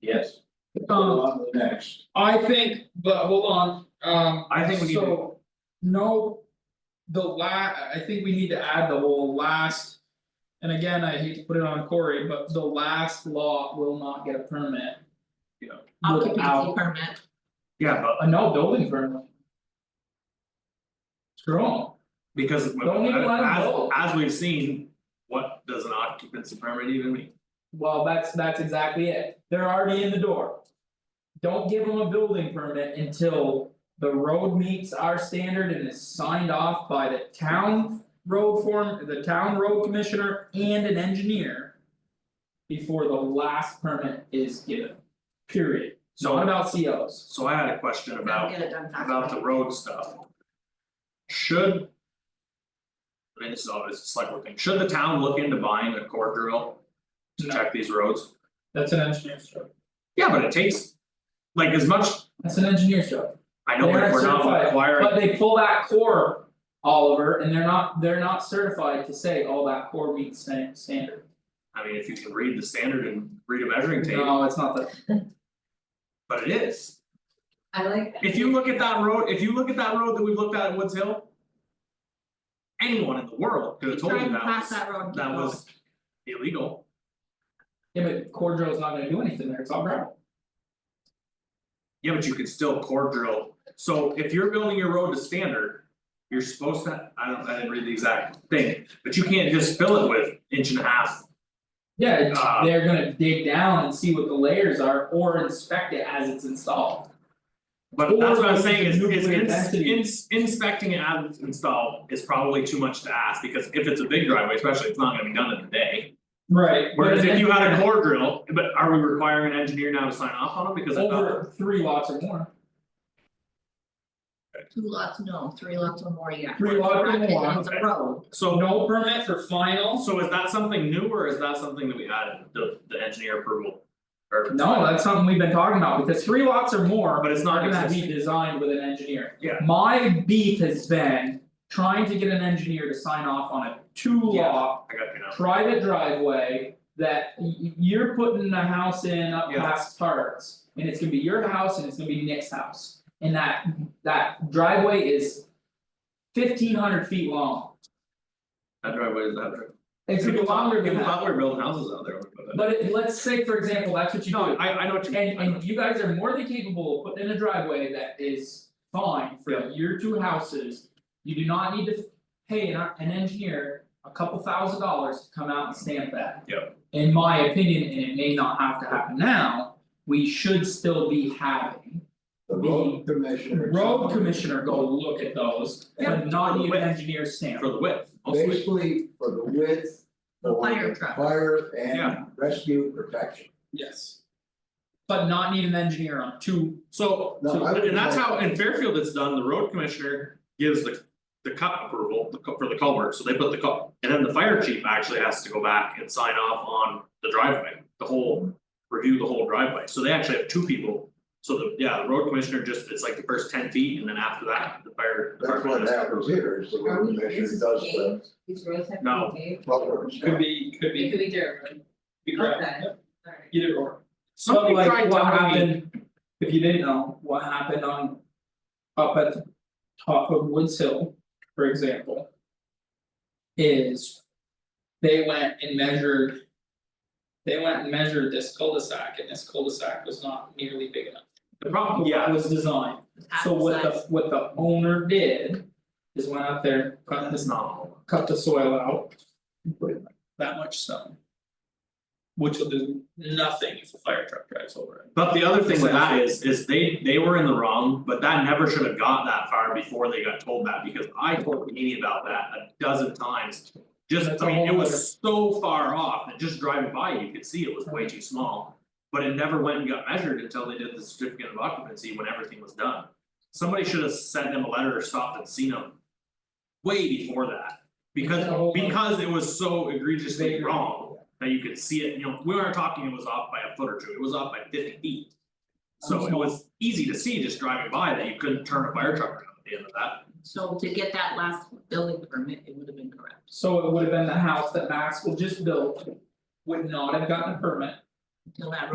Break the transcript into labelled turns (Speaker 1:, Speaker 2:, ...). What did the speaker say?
Speaker 1: Yes.
Speaker 2: Um,
Speaker 1: On to the next.
Speaker 2: I think, but hold on, um.
Speaker 3: I think we need to-
Speaker 2: so, No. The la, I think we need to add the whole last. And again, I hate to put it on Corey, but the last lot will not get a permit.
Speaker 3: Yeah.
Speaker 4: occupancy
Speaker 2: Without
Speaker 4: permit,
Speaker 3: Yeah, but
Speaker 2: a no building permit. Screw 'em.
Speaker 3: because as
Speaker 2: Don't even let 'em go.
Speaker 3: as we've seen, what does an occupancy permit even mean?
Speaker 2: well, that's that's exactly it, they're already in the door. Don't give them a building permit until the road meets our standard and is signed off by the town road form, the town road commissioner and an engineer. Before the last permit is given, period, it's
Speaker 3: So-
Speaker 2: not about COs.
Speaker 3: So I had a question
Speaker 4: gotta
Speaker 3: about
Speaker 4: get it done faster.
Speaker 3: about the road stuff. Should. I mean, this is obviously a select board thing, should the town look into buying a core drill to
Speaker 2: No.
Speaker 3: check these roads?
Speaker 2: That's an engineer's job,
Speaker 3: Yeah, but it takes. Like as much,
Speaker 2: that's an engineer's job,
Speaker 3: I know
Speaker 2: They
Speaker 3: that
Speaker 2: aren't
Speaker 3: we're not
Speaker 2: certified,
Speaker 3: requiring,
Speaker 2: but they pull that core. Oliver, and they're not, they're not certified to say, all that core meets stan- standard,
Speaker 3: I mean, if you can read the standard and read a measuring tape,
Speaker 2: no, it's not that
Speaker 3: but it is.
Speaker 4: I like that.
Speaker 3: If you look at that road, if you look at that road that we've looked at at Woods Hill. Anyone in the world could have told you
Speaker 4: Drive
Speaker 3: that
Speaker 4: past
Speaker 3: was,
Speaker 4: that road.
Speaker 3: that was illegal,
Speaker 2: Yeah, but core drill's not gonna do anything there, it's all gravel.
Speaker 3: yeah, but you could still core drill, so if you're building your road to standard. You're supposed to, I don't, I didn't read the exact thing, but you can't just fill it with inch and a half,
Speaker 2: Yeah, it's-
Speaker 3: Ah.
Speaker 2: they're gonna dig down and see what the layers are or inspect it as it's installed.
Speaker 3: but that's what
Speaker 2: Or
Speaker 3: I'm saying is
Speaker 2: the
Speaker 3: is
Speaker 2: nuclear
Speaker 3: ins-
Speaker 2: density.
Speaker 3: ins- inspecting it as it's installed is probably too much to ask, because if it's a big driveway, especially, it's not gonna be done in a day.
Speaker 2: Right.
Speaker 3: Whereas if you had a core drill, but are we requiring an engineer now to sign off on them because I thought,
Speaker 2: Over three lots or more,
Speaker 4: Two lots, no, three lots or more, yeah.
Speaker 2: Three lots or
Speaker 4: Bracket,
Speaker 2: more,
Speaker 4: it's a
Speaker 3: okay.
Speaker 4: road,
Speaker 3: so
Speaker 2: no permit for finals,
Speaker 3: so is that something new or is that something that we added, the the engineer approval? Or
Speaker 2: no, that's something we've been talking about, because three lots or more
Speaker 3: but it's
Speaker 2: are
Speaker 3: not
Speaker 2: gonna be
Speaker 3: existing,
Speaker 2: designed with an engineer.
Speaker 3: Yeah.
Speaker 2: My beef has been trying to get an engineer to sign off on a two
Speaker 3: Yeah.
Speaker 2: lot
Speaker 3: I got you now,
Speaker 2: private driveway that y- y- you're putting a house in up
Speaker 3: Yeah.
Speaker 2: past Tarts. And it's gonna be your house and it's gonna be Nick's house, and that that driveway is fifteen hundred feet long.
Speaker 3: that driveway is that driveway.
Speaker 2: It's gonna be longer than
Speaker 3: People
Speaker 2: that,
Speaker 3: thought we were building houses out there, but
Speaker 2: but it- let's say, for example, that's what you do.
Speaker 3: no, I I know what you mean,
Speaker 2: And
Speaker 3: I know
Speaker 2: and you guys are more than capable of putting in a driveway that is fine
Speaker 3: Yeah.
Speaker 2: for your two houses. You do not need to pay an an engineer a couple thousand dollars to come out and stamp that.
Speaker 3: Yeah.
Speaker 2: In my opinion, and it may not have to happen now, we should still be having
Speaker 1: The road commissioner.
Speaker 2: road commissioner go look at those,
Speaker 3: Yeah.
Speaker 2: but not need an engineer stamp.
Speaker 3: for the width, mostly,
Speaker 1: Basically for the width.
Speaker 4: The
Speaker 1: for
Speaker 4: fire truck.
Speaker 1: Fire
Speaker 3: Yeah.
Speaker 1: and rescue protection.
Speaker 2: Yes. But not need an engineer on two,
Speaker 3: so
Speaker 1: No,
Speaker 3: so-
Speaker 1: I would
Speaker 3: and that's
Speaker 1: like-
Speaker 3: how in Fairfield it's done, the road commissioner gives the. The cut approval, the cu- for the culvert, so they put the cut, and then the fire chief actually has to go back and sign off on the driveway, the whole. Review the whole driveway, so they actually have two people, so the, yeah, the road commissioner just, it's like the first ten feet, and then after that, the fire
Speaker 1: That's
Speaker 3: department
Speaker 1: what
Speaker 3: has to-
Speaker 1: happens here is the
Speaker 5: Are
Speaker 1: road
Speaker 5: we-
Speaker 1: commissioner
Speaker 5: this
Speaker 1: does
Speaker 5: is
Speaker 1: the
Speaker 5: These roads have
Speaker 3: No.
Speaker 5: to be paved?
Speaker 1: proper stuff.
Speaker 2: could be, could
Speaker 5: It
Speaker 2: be,
Speaker 5: could be dirt road,
Speaker 2: be correct.
Speaker 5: okay, alright.
Speaker 2: Either or.
Speaker 3: Somebody
Speaker 2: But
Speaker 3: tried
Speaker 2: like what
Speaker 3: telling me-
Speaker 2: happened, if you didn't know, what happened on. Up at the top of Woods Hill, for example. Is. They went and measured. They went and measured this cul-de-sac and this cul-de-sac was not nearly big enough.
Speaker 3: The problem, yeah,
Speaker 2: It was designed,
Speaker 4: it's half
Speaker 2: so what
Speaker 4: size.
Speaker 2: the what the owner did. Is went out there, cut
Speaker 3: that's
Speaker 2: this,
Speaker 3: not all,
Speaker 2: cut the soil out. and Put in that much stone. Which will do nothing if a fire truck drives over it.
Speaker 3: but the other thing with that is, is they, they were in the wrong, but that never should have got that far before they got told that, because I told Kenny about that a dozen times. Just,
Speaker 2: That's
Speaker 3: I
Speaker 2: a
Speaker 3: mean, it
Speaker 2: whole
Speaker 3: was so far off, that just driving by, you could see it was way too small. But it never went and got measured until they did the certificate of occupancy when everything was done. Somebody should have sent them a letter or stopped and seen them. Way before that, because
Speaker 2: It's a whole-
Speaker 3: because it was so egregiously
Speaker 2: Bigger.
Speaker 3: wrong that you could see it, you know, we weren't talking it was off by a foot or two, it was off by fifty feet. So it was easy to see just driving by that you couldn't turn a fire truck around at the end of that.
Speaker 4: So to get that last building permit, it would have been correct.
Speaker 2: So it would have been the house that Maxwell just built, would not have gotten a permit.
Speaker 4: Until that road